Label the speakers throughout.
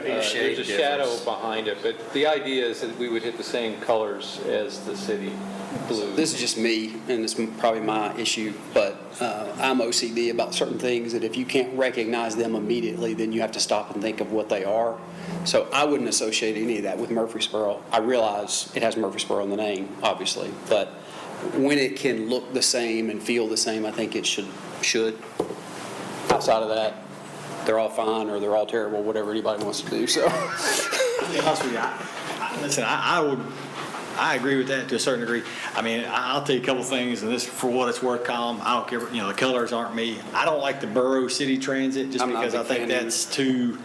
Speaker 1: Uh, There's a shadow
Speaker 2: difference.
Speaker 1: behind it, but the idea is that we would hit the same colors as the city blue.
Speaker 3: This is just me, and it's probably my issue, but uh, I'm OCD about certain things that if you can't recognize them immediately, then you have to stop and think of what they are. So I wouldn't associate any of that with Murfreesboro. I realize it has Murfreesboro in the name, obviously, but when it can look the same and feel the same, I think it should, should. Outside of that, they're all fine, or they're all terrible, whatever anybody wants to do, so.
Speaker 4: be honest with you, I- I- Listen, I, I would, I agree with that to a certain degree. I mean, I- I'll tell you a couple things, and this, for what it's worth, Colin, I don't care, you know, the colors aren't me. I don't like the borough city transit, just
Speaker 3: I'm not a
Speaker 4: because I
Speaker 3: big
Speaker 4: think
Speaker 3: fan either.
Speaker 4: that's too,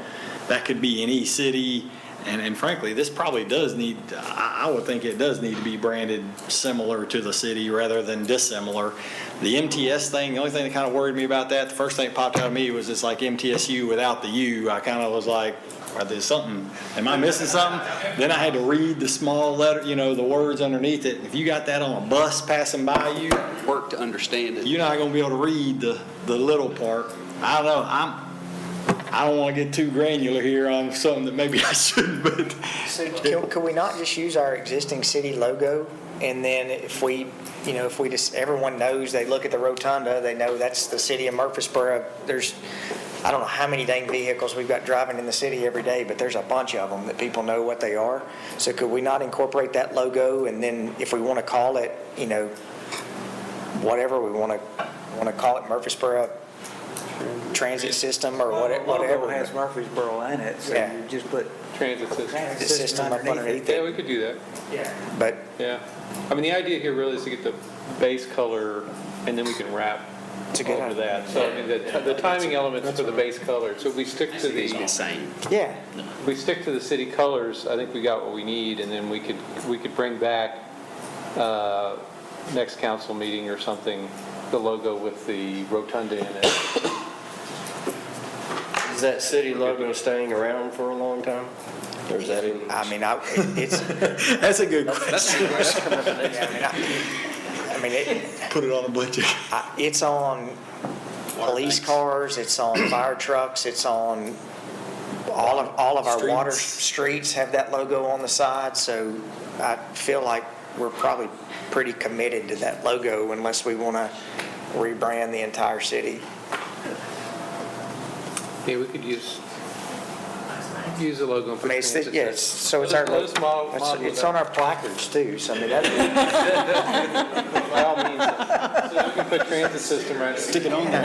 Speaker 4: that could be any city. And, and frankly, this probably does need, I, I would think it does need to be branded similar to the city rather than dissimilar. The MTS thing, the only thing that kind of worried me about that, the first thing that popped out of me was it's like MTSU without the U. I kind of was like, are there something, am I missing something? Then I had to read the small letter, you know, the words underneath it. If you got that on a bus passing by you,
Speaker 3: Work to understand it.
Speaker 4: you're not gonna be able to read the, the little part. I don't know, I'm, I don't wanna get too granular here on something that maybe I shouldn't, but
Speaker 5: So can, could we not just use our existing city logo? And then if we, you know, if we just, everyone knows, they look at the rotunda, they know that's the city of Murfreesboro. There's, I don't know how many dang vehicles we've got driving in the city every day, but there's a bunch of them that people know what they are. So could we not incorporate that logo? And then if we want to call it, you know, whatever, we want to, want to call it Murfreesboro Transit System or
Speaker 6: Well, the
Speaker 5: what-
Speaker 6: Logo
Speaker 5: whatever.
Speaker 6: has Murfreesboro in it, so
Speaker 5: Yeah.
Speaker 6: you just put
Speaker 1: Transit system.
Speaker 6: transit
Speaker 5: System
Speaker 6: system
Speaker 5: up
Speaker 6: underneath
Speaker 5: underneath
Speaker 6: it.
Speaker 1: Yeah, we could do that,
Speaker 5: But
Speaker 1: yeah. I mean, the idea here really is to get the base color, and then we can wrap
Speaker 5: it's a good
Speaker 1: over
Speaker 5: idea.
Speaker 1: that. So I mean, the the timing elements for the base color, so if we stick to the, if
Speaker 3: same.
Speaker 5: Yeah.
Speaker 1: we stick to the city colors, I think we got what we need, and then we could, we could bring back uh, next council meeting or something, the logo with the rotunda in it.
Speaker 2: Is that city logo staying around for a long time? Or is that even?
Speaker 5: I mean, I, it's,
Speaker 4: that's a good question.
Speaker 5: Yeah, I mean, I I mean, it,
Speaker 4: Put it on a budget.
Speaker 5: I- it's on police cars, it's on fire trucks, it's on, all of, all of our water streets have that logo on the side, so I feel like we're probably pretty committed to that logo unless we want to rebrand the entire city.
Speaker 1: Yeah, we could use, use the logo. and
Speaker 5: I
Speaker 1: put
Speaker 5: mean, it's,
Speaker 1: transit
Speaker 5: yes,
Speaker 1: system.
Speaker 5: so it's our,
Speaker 1: Let us model-
Speaker 5: it's
Speaker 1: model
Speaker 5: it's
Speaker 1: that.
Speaker 5: on our placards too, so I mean, that,
Speaker 1: By all means, so we can put transit system right. Stick it on there.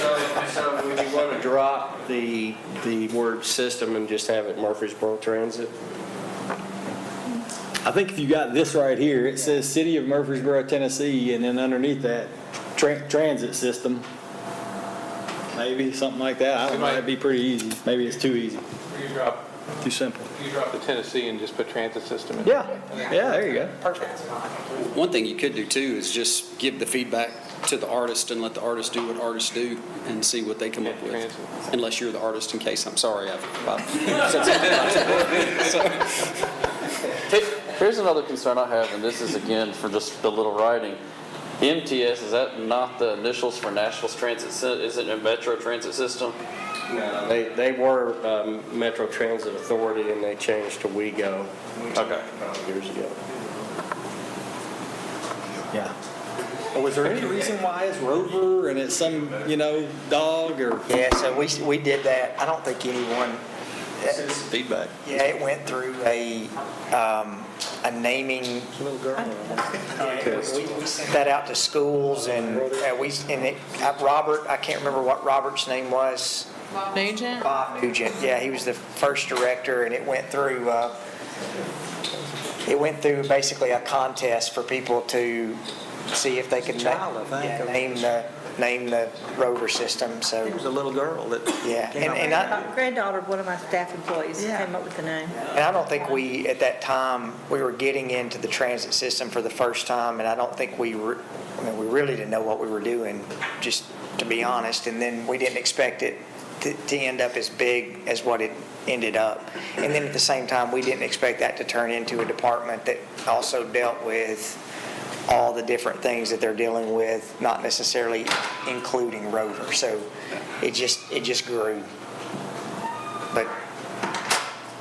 Speaker 2: So so would you want to drop the, the word system and just have it Murfreesboro Transit?
Speaker 4: I think if you got this right here, it says City of Murfreesboro, Tennessee, and then underneath that, tran- transit system. Maybe, something like that. I don't know, that'd be pretty easy. Maybe it's too easy,
Speaker 1: You drop,
Speaker 4: too simple.
Speaker 1: you drop the Tennessee and just put transit system in.
Speaker 4: Yeah, yeah, there you go.
Speaker 3: One thing you could do too is just give the feedback to the artist and let the artist do what artists do and see what they come up
Speaker 1: Yeah,
Speaker 3: with.
Speaker 1: trans-
Speaker 3: Unless you're the artist, in case, I'm sorry, I've, I've-
Speaker 7: Hey, Here's another concern I have, and this is again for just the little writing. MTS, is that not the initials for Nashville's transit, sy- is it a metro transit system?
Speaker 2: They, they were um, Metro Transit Authority and they changed to WeGo. Okay. Years ago.
Speaker 4: Yeah. Was there any reason why it's Rover and it's some, you know, dog or?
Speaker 5: yeah, so we, we did that. I don't think anyone,
Speaker 4: Feedback.
Speaker 5: Yeah, it went through a, um, a naming. We we sent that out to schools and uh, we, and it, uh, Robert, I can't remember what Robert's name was.
Speaker 8: Nugent?
Speaker 5: Bob Nugent, yeah, he was the first director and it went through, uh, it went through basically a contest for people to see if they could na-
Speaker 6: Child, I think,
Speaker 5: yeah,
Speaker 6: of-
Speaker 5: name the, name the rover system, so,
Speaker 6: There was a little girl that.
Speaker 5: yeah.
Speaker 6: came
Speaker 5: And,
Speaker 6: up
Speaker 5: and
Speaker 6: with
Speaker 5: I,
Speaker 8: Granddaughter of one of my staff employees
Speaker 6: Yeah.
Speaker 8: came up with the name.
Speaker 5: And I don't think we, at that time, we were getting into the transit system for the first time, and I don't think we, re- I mean, we really didn't know what we were doing, just to be honest, and then we didn't expect it to, to end up as big as what it ended up. And then at the same time, we didn't expect that to turn into a department that also dealt with all the different things that they're dealing with, not necessarily including Rover. So it just, it just grew.